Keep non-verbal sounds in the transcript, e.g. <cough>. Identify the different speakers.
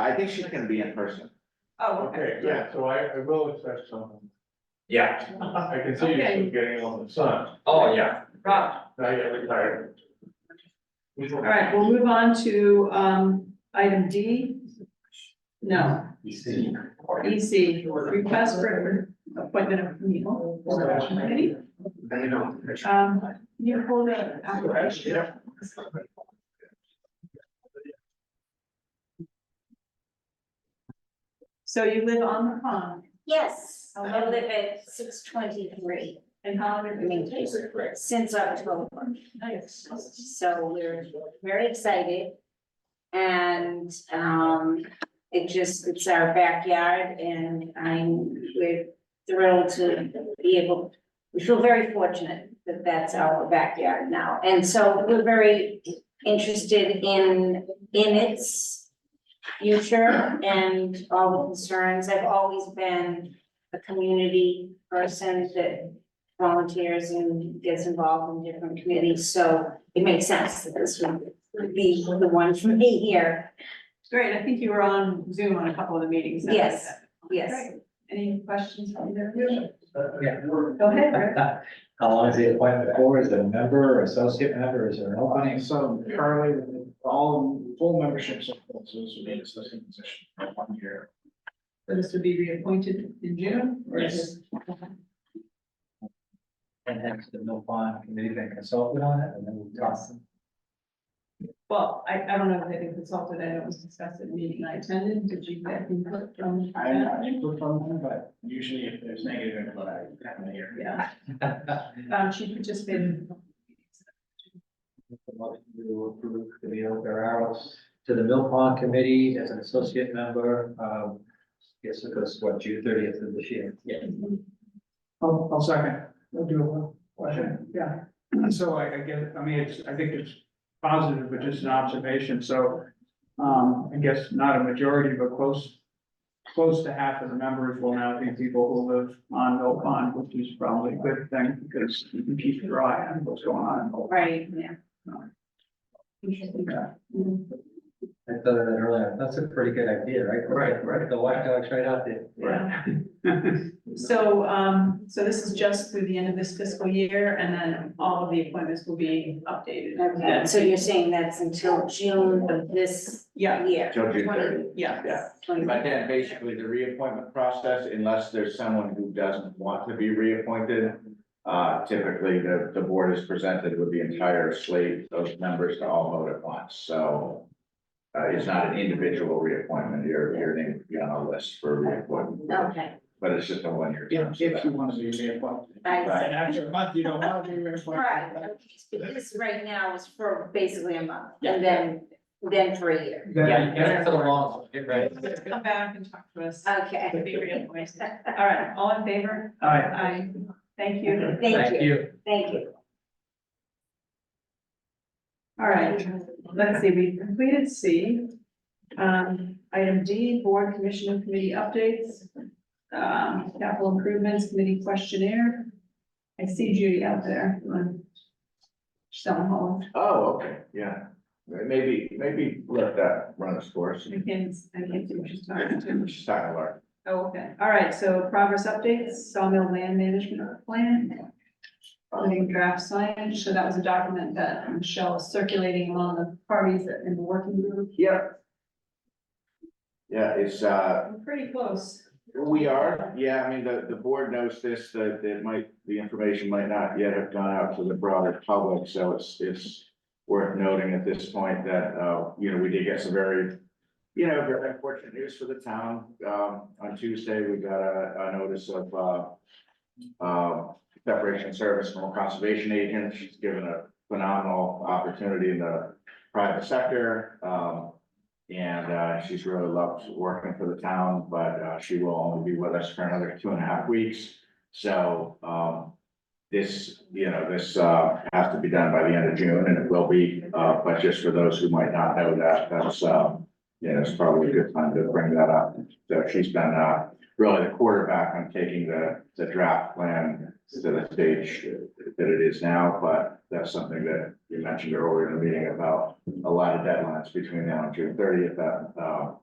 Speaker 1: I think she's gonna be in person.
Speaker 2: Oh, okay.
Speaker 3: Okay, yeah, so I, I will expect someone.
Speaker 4: Yeah,
Speaker 3: I can see
Speaker 2: Okay.
Speaker 3: you getting along with the sun,
Speaker 4: oh, yeah,
Speaker 2: Rob.
Speaker 3: now you're retired.
Speaker 2: All right, we'll move on to, um, item D. No, EC, request for appointment of Neil. Committee.
Speaker 1: Then you know.
Speaker 2: Um, can you pull the application. So you live on the pond,
Speaker 5: Yes,
Speaker 2: Oh,
Speaker 5: I
Speaker 2: wow.
Speaker 5: live at six twenty-three
Speaker 2: and how long have you been here?
Speaker 5: since October,
Speaker 2: Nice.
Speaker 5: so we're very excited. And, um, it just, it's our backyard and I'm, we're thrilled to be able, we feel very fortunate that that's our backyard now. And so we're very interested in, in its future and all the concerns. I've always been a community person that volunteers and gets involved in different committees, so it makes sense that this would be the one for me here.
Speaker 2: Great, I think you were on Zoom on a couple of the meetings. that we
Speaker 5: Yes,
Speaker 2: had.
Speaker 5: yes.
Speaker 2: Great. Any questions from either of you?
Speaker 6: Yeah. <laughs>
Speaker 2: Go ahead, Rick.
Speaker 6: How long is the appointment for? Is it a member or associate member? Is there an
Speaker 7: Funny,
Speaker 6: opening?
Speaker 7: so currently, all full memberships of councils would be in associate position for one year.
Speaker 2: So this would be reappointed in June? or is
Speaker 6: Yes.
Speaker 2: it-
Speaker 6: And has the Mill Pond Committee been consulted on it? And then we'll talk.
Speaker 2: Well, I, I don't know if they've been consulted, I know it was discussed at a meeting I attended, did you get input from?
Speaker 7: I am not input from them, but usually if there's negative input, I have an ear.
Speaker 2: Yeah, um, she participated. in a couple of meetings.
Speaker 6: To approve Camille Guerrero <laughs> to the Mill Pond Committee as an associate member. Um, guess it goes, what, June thirtieth of this year? Yeah.
Speaker 7: I'll, I'll second. I'll do one question. Yeah. So I, I guess, I mean, it's, I think it's positive, but just an observation, so. Um, I guess not a majority, but close, close to half of the members will now be people who live on Mill Pond, which is probably a good thing, because you can keep your eye on what's going on in Mill Pond.
Speaker 5: Right, yeah.
Speaker 2: Interesting.
Speaker 6: I thought of that earlier. That's a pretty good idea, right?
Speaker 7: Right, right.
Speaker 6: The white dog's right out there.
Speaker 2: Yeah. So, um, so this is just through the end of this fiscal year, and then all of the appointments will be updated.
Speaker 5: Okay, so you're saying that's until June of this
Speaker 2: Yeah,
Speaker 5: year?
Speaker 1: Till June 30.
Speaker 2: yeah.
Speaker 1: Yeah.
Speaker 5: Twenty-
Speaker 1: But then basically the reappointment process, unless there's someone who doesn't want to be reappointed, uh, typically the, the board is presented with the entire slate of members to all vote at once, so. Uh, it's not an individual reappointment, your, your name would be on a list for reappointment,
Speaker 5: Okay,
Speaker 1: but it's just a one-year term.
Speaker 7: If,
Speaker 1: so
Speaker 7: <laughs> if
Speaker 1: that-
Speaker 7: you want to be reappointed.
Speaker 5: I
Speaker 7: And after a month, you don't want to be
Speaker 5: see.
Speaker 7: reappointed.
Speaker 5: Right, okay, so this right now is for basically a month, and then, then for a year.
Speaker 7: Then I guess-
Speaker 6: for the long, right?
Speaker 2: Come back and talk to us.
Speaker 5: Okay,
Speaker 2: It'd be reappointed. All right, all in favor?
Speaker 7: All right.
Speaker 2: Aye. Thank you.
Speaker 5: thank you, thank you.
Speaker 2: All right, let's see, we completed C. Um, item D, board commission and committee updates. Um, capital improvements committee questionnaire. I see Judy out there. um, She's on hold.
Speaker 1: Oh, okay, yeah, maybe, maybe let that run its course,
Speaker 2: I can't, I can't see what she's talking to.
Speaker 1: she's not gonna learn.
Speaker 2: Oh, okay. All right, so progress updates, sawmill land management plan. Living draft signage, so that was a document that Michelle is circulating among the parties in the working group.
Speaker 1: Yep. Yeah, it's, uh,
Speaker 2: I'm pretty close.
Speaker 1: We are, yeah, I mean, the, the board knows this, that it might, the information might not yet have gone out to the broader public, so it's, it's worth noting at this point that, uh, you know, we did get some very, you know, very unfortunate news for the town. Um, on Tuesday, we got a, a notice of, uh, uh, separation of service from a conservation agent. She's given a phenomenal opportunity in the private sector. Um, and uh, she's really loved working for the town, but uh, she will only be with us for another two and a half weeks. So um, this, you know, this uh, has to be done by the end of June and it will be, uh, but just for those who might not know that, that's, um, you know, it's probably a good time to bring that up. So she's been uh, really the quarterback on taking the, the draft plan to the stage that it is now, but that's something that you mentioned earlier in the meeting about a lot of deadlines between now and June thirtieth, that, uh,